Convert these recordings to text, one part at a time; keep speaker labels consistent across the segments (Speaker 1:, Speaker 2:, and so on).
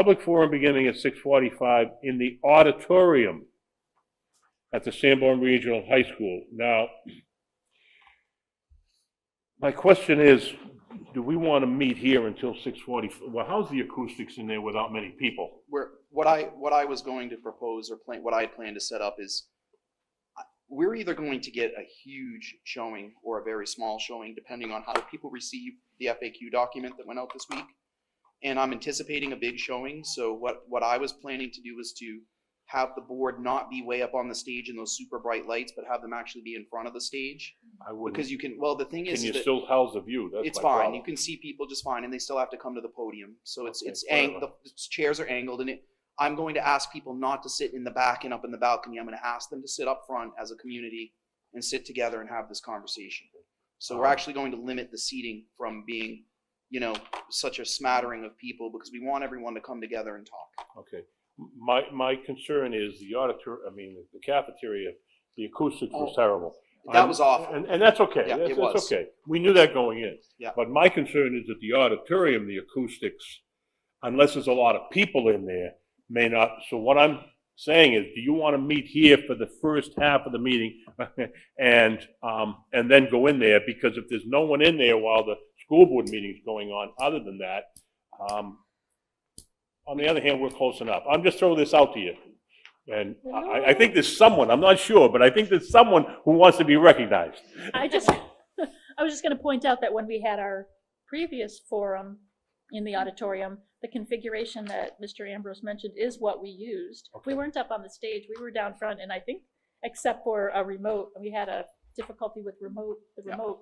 Speaker 1: Public forum beginning at 6:45 in the auditorium at the Sanborn Regional High School. Now, my question is, do we want to meet here until 6:40? Well, how's the acoustics in there without many people?
Speaker 2: where, what I, what I was going to propose or plan, what I had planned to set up is, I- we're either going to get a huge showing or a very small showing, depending on how people receive the FAQ document that went out this week. And I'm anticipating a big showing, so what, what I was planning to do was to have the board not be way up on the stage in those super bright lights, but have them actually be in front of the stage.
Speaker 1: I wouldn't,
Speaker 2: Because you can, well, the thing is
Speaker 1: Mm-hmm. can you
Speaker 2: that
Speaker 1: still house the view? That's
Speaker 2: it's
Speaker 1: my
Speaker 2: fine.
Speaker 1: problem.
Speaker 2: You can see people just fine, and they still have to come to the podium. So it's
Speaker 1: Okay,
Speaker 2: it's ang- the
Speaker 1: whatever.
Speaker 2: the chairs are angled, and it. I'm going to ask people not to sit in the back and up in the balcony. I'm going to ask them to sit up front as a community and sit together and have this conversation. So we're
Speaker 1: Um,
Speaker 2: actually going to limit the seating from being, you know, such a smattering of people because we want everyone to come together and talk.
Speaker 1: Okay. M- My, my concern is the auditor, I mean, the cafeteria, the acoustics was
Speaker 2: Oh.
Speaker 1: terrible.
Speaker 2: That
Speaker 1: I'm-
Speaker 2: was awful.
Speaker 1: And, and that's okay.
Speaker 2: Yeah,
Speaker 1: That's,
Speaker 2: it
Speaker 1: that's
Speaker 2: was.
Speaker 1: okay. We knew that going in.
Speaker 2: Yeah.
Speaker 1: But my concern is that the auditorium, the acoustics, unless there's a lot of people in there, may not. So what I'm saying is, do you want to meet here for the first half of the meeting? And, um, and then go in there? Because if there's no one in there while the school board meeting's going on, other than that, um, on the other hand, we're close enough. I'm just throwing this out to you. And I, I think there's someone, I'm not sure, but I think there's someone who wants to be recognized.
Speaker 3: I just, I was just gonna point out that when we had our previous forum in the auditorium, the configuration that Mr. Ambrose mentioned is what we used. We
Speaker 1: Okay.
Speaker 3: weren't up on the stage, we were down front, and I think, except for a remote, we had a difficulty with remote, the
Speaker 2: Yeah.
Speaker 3: remote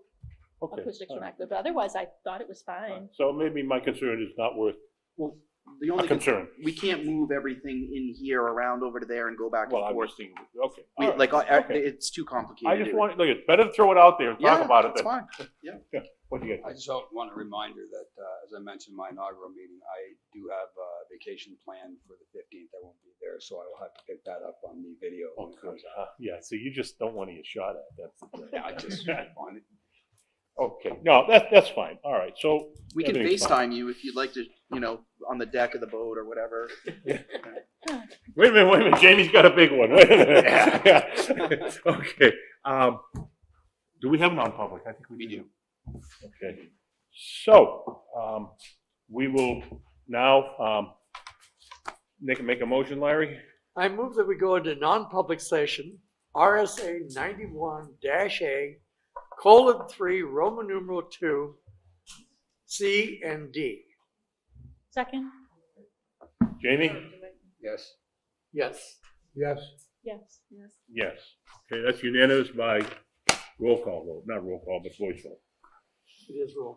Speaker 1: Okay.
Speaker 3: acoustics
Speaker 1: all
Speaker 3: were
Speaker 1: right,
Speaker 3: not good, but otherwise I thought it was
Speaker 1: all right.
Speaker 3: fine.
Speaker 1: So maybe my concern is not worth
Speaker 2: Well, the
Speaker 1: a
Speaker 2: only
Speaker 1: concern.
Speaker 2: we can't move everything in here around over to there and go back
Speaker 1: Well,
Speaker 2: and
Speaker 1: I was
Speaker 2: forth.
Speaker 1: thinking, okay.
Speaker 2: We,
Speaker 1: all right,
Speaker 2: like I, I-
Speaker 1: okay.
Speaker 2: it's too complicated.
Speaker 1: I just want, look, it's better to throw it out there and talk
Speaker 2: Yeah,
Speaker 1: about it
Speaker 2: It's
Speaker 1: than,
Speaker 2: fine.
Speaker 1: what do you
Speaker 4: I
Speaker 1: guys?
Speaker 4: just also want a reminder that, uh, as I mentioned, in my inaugural meeting, I do have a vacation planned for the fifteenth. I won't be there, so I will have to pick that up on the video.
Speaker 1: Oh,
Speaker 4: when it
Speaker 1: good.
Speaker 4: comes
Speaker 1: Uh, Yeah, so you just don't want to get shot at, that's. the thing.
Speaker 4: out. Yeah, I just wanted,
Speaker 1: Okay, no, that, that's fine, all right, so.
Speaker 2: We can
Speaker 1: everything's fine.
Speaker 2: FaceTime you if you'd like to, you know, on the deck of the boat or whatever.
Speaker 1: Wait a minute, wait a minute, Jamie's got a big one, wait a minute. Okay, um, do we have non-public? I think we do. Okay, so, um, we will now, um, make, make a motion, Larry?
Speaker 5: I move that we go into non-public session, RSA ninety-one dash A, colon three, Roman numeral two, C and D.
Speaker 3: Second,
Speaker 1: Jamie?
Speaker 4: yes.
Speaker 5: Yes. Yes.
Speaker 3: yes. Yes.
Speaker 1: Yes. Okay, that's unanimous by roll call vote, not roll call, but voice vote.
Speaker 5: It is roll